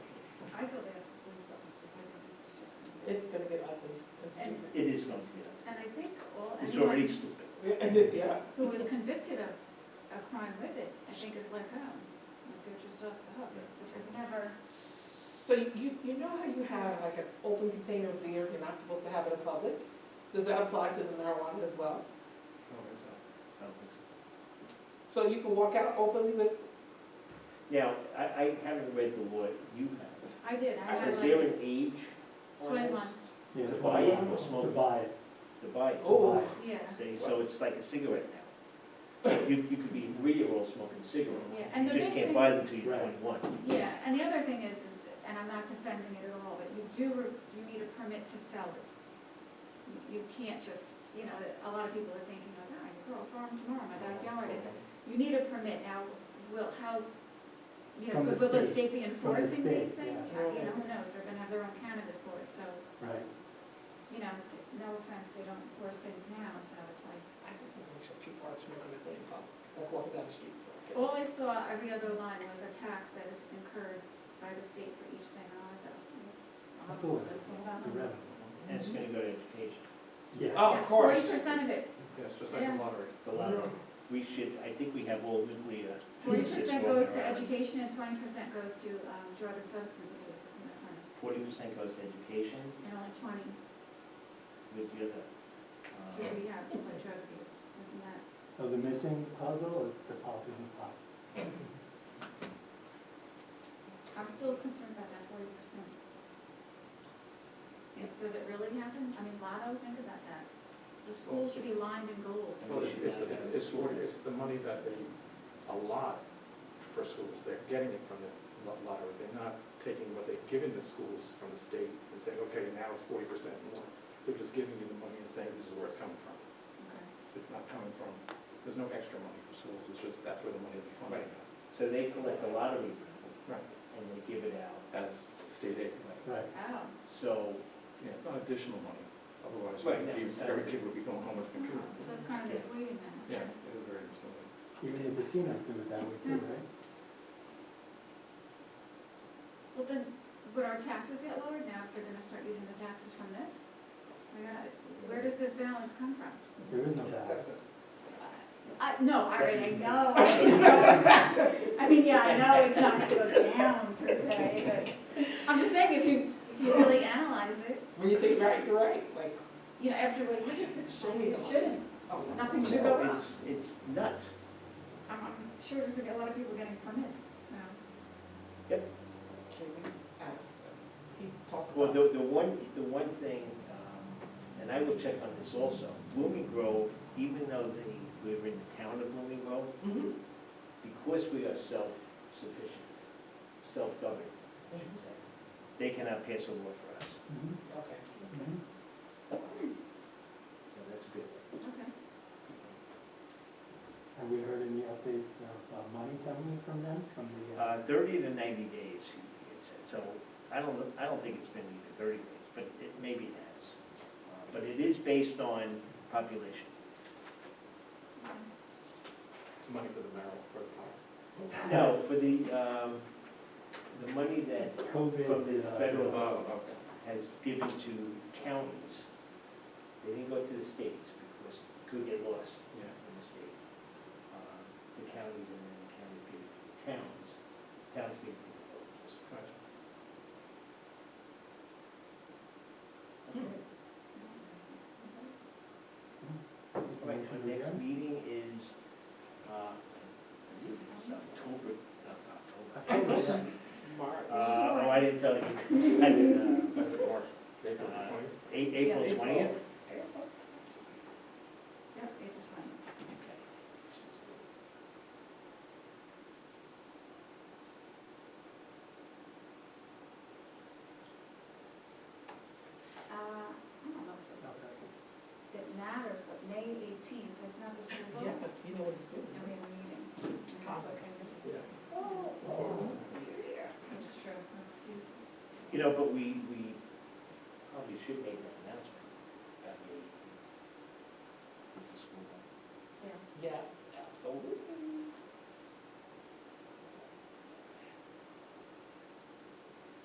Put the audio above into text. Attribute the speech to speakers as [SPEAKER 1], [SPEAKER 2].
[SPEAKER 1] It's gonna get ugly and stupid.
[SPEAKER 2] It is going to be,
[SPEAKER 3] And I Oh, think all,
[SPEAKER 2] it's
[SPEAKER 3] anyone
[SPEAKER 2] already stupid.
[SPEAKER 1] And it, yeah,
[SPEAKER 3] who was convicted of a crime with it, I think is let go. Like they're just off the hook, which I've never,
[SPEAKER 1] So you, you know how you have like an open container of beer, you're not supposed to have it in public? Does that apply to the marijuana as well?
[SPEAKER 2] I don't think so. I don't think so.
[SPEAKER 1] So you can walk out openly with,
[SPEAKER 2] Now, I, I haven't read the law you have.
[SPEAKER 3] I did, I had
[SPEAKER 2] Is there
[SPEAKER 3] like
[SPEAKER 2] an age on this?
[SPEAKER 3] twenty-one,
[SPEAKER 4] Yeah,
[SPEAKER 2] To
[SPEAKER 4] it's
[SPEAKER 2] buy it
[SPEAKER 4] not-
[SPEAKER 2] or smoke
[SPEAKER 4] To
[SPEAKER 2] it?
[SPEAKER 4] buy it.
[SPEAKER 2] To buy it.
[SPEAKER 1] oh,
[SPEAKER 3] yeah,
[SPEAKER 2] See, so it's like a cigarette now. You, you could be a three-year-old smoking a
[SPEAKER 3] yeah.
[SPEAKER 2] cigarette.
[SPEAKER 3] And the
[SPEAKER 2] You just
[SPEAKER 3] big thing-
[SPEAKER 2] can't buy them till you're
[SPEAKER 4] Right.
[SPEAKER 2] twenty-one.
[SPEAKER 3] Yeah, and the other thing is, is, and I'm not defending it at all, but you do, re- you need a permit to sell it. You- You can't just, you know, a lot of people are thinking, like, oh, I can grow a farm tomorrow in my backyard, it's, you need a permit now, will, how, you know,
[SPEAKER 4] From the
[SPEAKER 3] will the
[SPEAKER 4] state.
[SPEAKER 3] state be
[SPEAKER 4] the
[SPEAKER 3] enforcing these
[SPEAKER 4] state,
[SPEAKER 3] things?
[SPEAKER 1] yeah.
[SPEAKER 3] Uh, You know, who knows, they're gonna have their own cannabis board, so,
[SPEAKER 4] Right.
[SPEAKER 3] you know, no offense, they don't enforce things now, so it's like,
[SPEAKER 1] I just wanna make sure people aren't smoking a thing in public, like walking down the street. Oh, so, okay.
[SPEAKER 3] all I saw every other line was a tax that is incurred by the state for each thing, and all that,
[SPEAKER 4] Of
[SPEAKER 3] that's,
[SPEAKER 4] course.
[SPEAKER 3] that's all about
[SPEAKER 4] The
[SPEAKER 3] money.
[SPEAKER 4] revenue.
[SPEAKER 2] And it's gonna go to education.
[SPEAKER 4] Yeah.
[SPEAKER 1] Oh, of course.
[SPEAKER 3] Forty percent of it,
[SPEAKER 5] Yes, just like
[SPEAKER 3] Yeah.
[SPEAKER 5] the lottery.
[SPEAKER 2] The lot, we should, I think we have all nuclear
[SPEAKER 3] Mm-hmm. forty
[SPEAKER 2] physicists
[SPEAKER 3] percent
[SPEAKER 2] walking
[SPEAKER 3] goes to
[SPEAKER 2] around.
[SPEAKER 3] education and twenty percent goes to um, drug and substance abuse, isn't that funny?
[SPEAKER 2] Forty percent goes to education,
[SPEAKER 3] And only twenty
[SPEAKER 2] where's the other?
[SPEAKER 3] to
[SPEAKER 2] um,
[SPEAKER 3] rehab, is for drug abuse, isn't that?
[SPEAKER 4] So Oh, the missing puzzle is the pop in the pot.
[SPEAKER 3] I'm still concerned about that forty percent.
[SPEAKER 2] Yeah.
[SPEAKER 3] Does it really happen? I mean, Lotto, think about that. The school should be lined in gold.
[SPEAKER 5] Well, it's, it's, it's, it's for- it's the money that they allot for schools, they're getting it from the lo- lottery. They're not taking what they've given the schools from the state and saying, okay, now it's forty percent more. They're just giving you the money and saying, this is where it's coming from.
[SPEAKER 3] Okay.
[SPEAKER 5] It's not coming from, there's no extra money for schools, it's just, that's where the money will be funded
[SPEAKER 2] So they collect a lottery money.
[SPEAKER 5] Right.
[SPEAKER 2] And they give it out.
[SPEAKER 5] as state aid.
[SPEAKER 4] Right.
[SPEAKER 3] Oh,
[SPEAKER 2] So,
[SPEAKER 5] Yeah, it's not additional money, otherwise
[SPEAKER 2] Right,
[SPEAKER 5] you'd be-
[SPEAKER 2] yeah.
[SPEAKER 5] every kid would be going home with a computer.
[SPEAKER 3] so it's kind of misleading then.
[SPEAKER 5] Yeah, it is very similar.
[SPEAKER 4] Even the casinos do it that way too, right?
[SPEAKER 3] Well, then, would our taxes get lowered now if they're gonna start using the taxes from this? I gotta- Where does this balance come from?
[SPEAKER 4] There is no balance.
[SPEAKER 3] I, no, I already know. I know. I mean, yeah, I know it's not gonna go down per se, but I'm just saying, if you, if you really analyze it,
[SPEAKER 1] When you think right, you're right, like,
[SPEAKER 3] You know, after religious, it shouldn't, it shouldn't,
[SPEAKER 1] oh.
[SPEAKER 3] nothing should go up.
[SPEAKER 2] it's, it's nuts.
[SPEAKER 3] I'm, I'm sure there's gonna be a lot of people getting permits, so.
[SPEAKER 1] Can we ask them? He talked
[SPEAKER 2] Well,
[SPEAKER 1] about.
[SPEAKER 2] the, the one, the one thing, um, and I will check on this also, Blooming Grove, even though they, we're in the town of Blooming Grove,
[SPEAKER 1] Mhm.
[SPEAKER 2] because we are self-sufficient, self-governed, I should say, they cannot pass a law for us.
[SPEAKER 4] Mhm,
[SPEAKER 1] Okay.
[SPEAKER 4] mhm.
[SPEAKER 2] So that's good.
[SPEAKER 3] Okay.
[SPEAKER 4] Have we heard any updates of uh, money coming in from them, from the, uh,
[SPEAKER 2] Uh, thirty to ninety days, he had said, so I don't, I don't think it's been either thirty days, but it, maybe it has. Uh, But it is based on population.
[SPEAKER 5] Money for the marijuana, for the pot.
[SPEAKER 2] No, for the, um, the money that
[SPEAKER 4] COVID?
[SPEAKER 2] from the
[SPEAKER 4] uh,
[SPEAKER 2] federal-
[SPEAKER 5] Oh, okay.
[SPEAKER 2] has given to counties, they didn't go to the states because it could get lost
[SPEAKER 5] Yeah.
[SPEAKER 2] in the state. Um, The counties and then the counties give it to the towns, towns give it to the villages.
[SPEAKER 5] Gotcha.
[SPEAKER 2] Okay. All right, our next meeting is, uh, it's October, not October.
[SPEAKER 1] Mark.
[SPEAKER 2] Uh, oh, I didn't tell you. I did, uh,
[SPEAKER 5] March, April
[SPEAKER 2] Uh,
[SPEAKER 5] twentieth.
[SPEAKER 2] A- April
[SPEAKER 3] Yeah.
[SPEAKER 2] twentieth?
[SPEAKER 3] Yep, April twentieth. Uh, I don't know if
[SPEAKER 4] Okay.
[SPEAKER 3] it- it matters, but May eighteenth is not the school vote.
[SPEAKER 1] Yes, you know what he's doing.
[SPEAKER 3] And we have a meeting. And that's
[SPEAKER 1] Conflicts.
[SPEAKER 3] okay.
[SPEAKER 5] Yeah.
[SPEAKER 3] It's true, no excuses.
[SPEAKER 2] You know, but we, we probably should make that